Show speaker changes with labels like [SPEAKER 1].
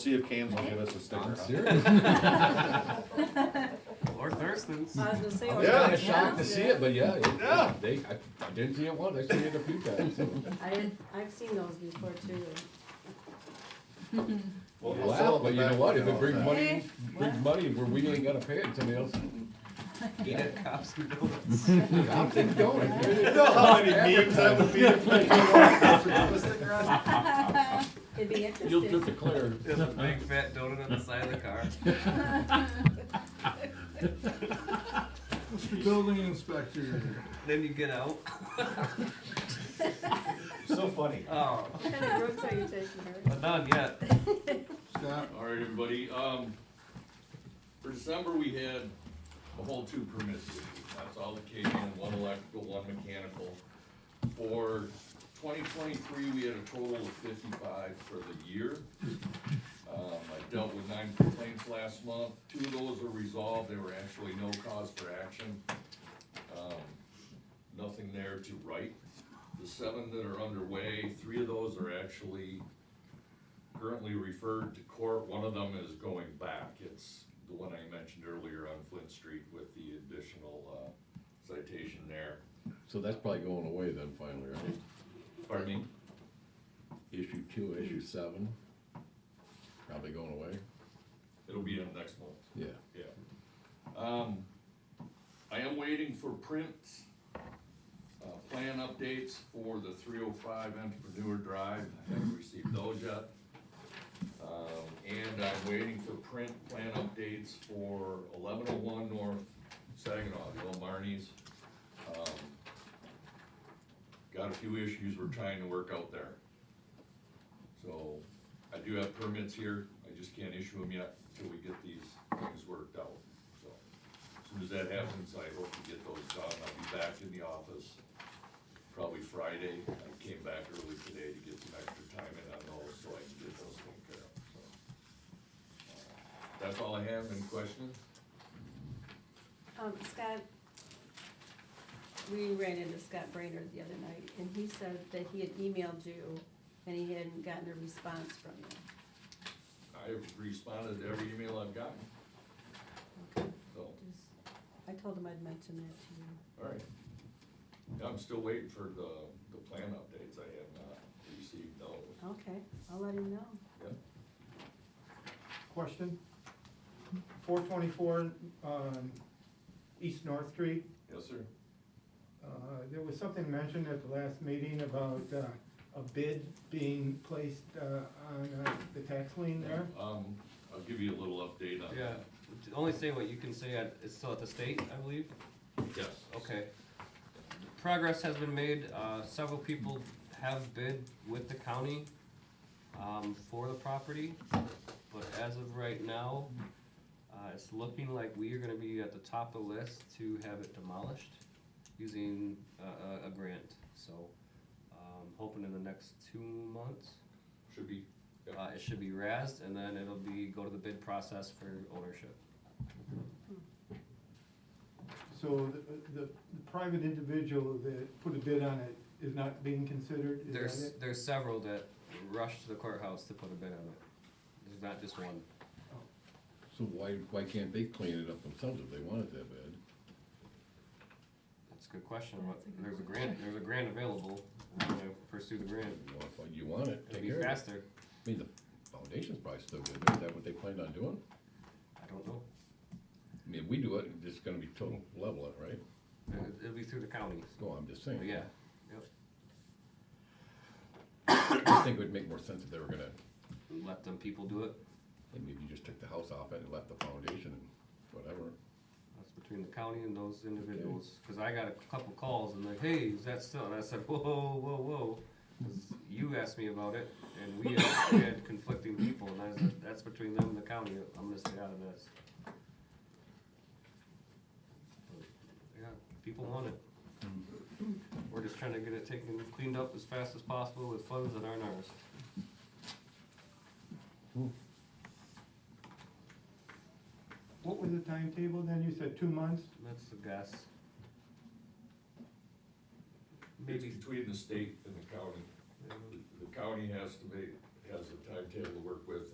[SPEAKER 1] See if Cam's will give us a
[SPEAKER 2] I'm
[SPEAKER 1] sticker. huh?
[SPEAKER 2] serious.
[SPEAKER 3] Or Thurston's.
[SPEAKER 4] I was gonna say.
[SPEAKER 2] I
[SPEAKER 4] or
[SPEAKER 2] was
[SPEAKER 1] Yeah.
[SPEAKER 2] kinda shocked to see it, but yeah, it-
[SPEAKER 1] Yeah.
[SPEAKER 2] they, I, I didn't see it once, I seen it a few times, so.
[SPEAKER 4] I, I've seen those before too.
[SPEAKER 1] We'll- we'll fill
[SPEAKER 2] Wow,
[SPEAKER 1] up the
[SPEAKER 2] but you know
[SPEAKER 1] back
[SPEAKER 2] what, if
[SPEAKER 1] with
[SPEAKER 2] it
[SPEAKER 1] all
[SPEAKER 2] brings
[SPEAKER 1] that.
[SPEAKER 2] money, brings money where we ain't gotta pay it, somebody else.
[SPEAKER 3] Eat at Cops and Donuts.
[SPEAKER 2] I'm thinking, don't, if you
[SPEAKER 1] You know how many memes that would be if we did one? Sticker on?
[SPEAKER 4] It'd be
[SPEAKER 2] You'll just
[SPEAKER 4] interesting.
[SPEAKER 2] declare.
[SPEAKER 3] There's a big fat donut on the side of the car.
[SPEAKER 5] Mr. Building Inspector.
[SPEAKER 3] Then you get out.
[SPEAKER 1] So funny.
[SPEAKER 3] Oh,
[SPEAKER 4] What kind of drugs are you taking, Eric?
[SPEAKER 3] but not yet.
[SPEAKER 5] Scott,
[SPEAKER 6] All right, everybody, um, for December, we had a whole two permits issued. That's all the K and one electrical, one mechanical. For twenty twenty-three, we had a total of fifty-five for the year. Um, I dealt with nine complaints last month, two of those are resolved, there were actually no cause for action. Um, Nothing there to write. The seven that are underway, three of those are actually currently referred to court, one of them is going back, it's the one I mentioned earlier on Flint Street with the additional, uh, citation there.
[SPEAKER 2] So that's probably going away then finally, right?
[SPEAKER 6] Pardon me?
[SPEAKER 2] Issue two, issue seven, probably going away,
[SPEAKER 6] It'll be in next month.
[SPEAKER 2] yeah.
[SPEAKER 6] Yeah. Um, I am waiting for prints, uh, plan updates for the three oh five Entrepreneur Drive, I haven't received those yet. Um, and I'm waiting for print plan updates for eleven oh one North Saginaw, the old Marnies. Um, Got a few issues we're trying to work out there. So, I do have permits here, I just can't issue them yet until we get these things worked out, so. As soon as that happens, I hope to get those done, I'll be back in the office probably Friday. I came back early today to get some extra time in on those, so I can get those taken care of, so. That's all I have, any questions?
[SPEAKER 4] Um, Scott, we ran into Scott Brainerd the other night, and he said that he had emailed you, and he hadn't gotten a response from you.
[SPEAKER 6] I have responded to every email I've gotten, so,
[SPEAKER 4] Just- I told him I'd mention that to you.
[SPEAKER 6] alright. I'm still waiting for the, the plan updates, I have not received those.
[SPEAKER 4] Okay, I'll let him know.
[SPEAKER 6] Yep.
[SPEAKER 7] Question? Four twenty-four, um, East North Street,
[SPEAKER 6] Yes, sir.
[SPEAKER 7] uh, there was something mentioned at the last meeting about, uh, a bid being placed, uh, on, uh, the tax lien there.
[SPEAKER 6] Um, I'll give you a little update on
[SPEAKER 3] Yeah.
[SPEAKER 6] that.
[SPEAKER 3] Only say what you can say. at- It's still at the state, I believe.
[SPEAKER 6] Yes.
[SPEAKER 3] Okay. Progress has been made, uh, several people have bid with the county, um, for the property, but as of right now, uh, it's looking like we are gonna be at the top of the list to have it demolished using a, a, a grant, so, um, hoping in the next two months,
[SPEAKER 6] Should be,
[SPEAKER 3] uh, it should be razed, and then it'll be, go to the bid process for ownership.
[SPEAKER 7] So the, the the private individual that put a bid on it is not being considered, is that
[SPEAKER 3] There's,
[SPEAKER 7] it?
[SPEAKER 3] there's several that rushed to the courthouse to put a bid on it. There's not just one.
[SPEAKER 2] So why, why can't they clean it up themselves if they wanted that bad?
[SPEAKER 3] That's a good question. What- There's a grant, there's a grant available. We're gonna pursue the grant.
[SPEAKER 2] Well, if you want it,
[SPEAKER 3] It'll
[SPEAKER 2] take
[SPEAKER 3] be
[SPEAKER 2] care of it.
[SPEAKER 3] faster.
[SPEAKER 2] I mean, the foundation's probably still good there, is that what they planned on doing?
[SPEAKER 3] I don't know.
[SPEAKER 2] I mean, if we do it, it's gonna be total leveling, right?
[SPEAKER 3] It- It'll be through the county.
[SPEAKER 2] No, I'm just saying.
[SPEAKER 3] But yeah, yep.
[SPEAKER 2] I just think it would make more sense if they were gonna,
[SPEAKER 3] Let them people do it.
[SPEAKER 2] maybe you just took the house off it and left the foundation and whatever.
[SPEAKER 3] That's between the county and those individuals. Cause I got a couple calls and like, hey, is that still? And I said, whoa, whoa, whoa. 'Cause you asked me about it and we had- we had conflicting people and I said, that's between them and the county. I'm gonna stay out of this. But, Yeah, people want it. We're just trying to get it taken, cleaned up as fast as possible with funds that aren't ours.
[SPEAKER 7] What was the timetable then? You said two months?
[SPEAKER 3] That's the guess.
[SPEAKER 6] it's
[SPEAKER 3] Maybe,
[SPEAKER 6] between the state and the county. The county has to be, has a timetable to work with,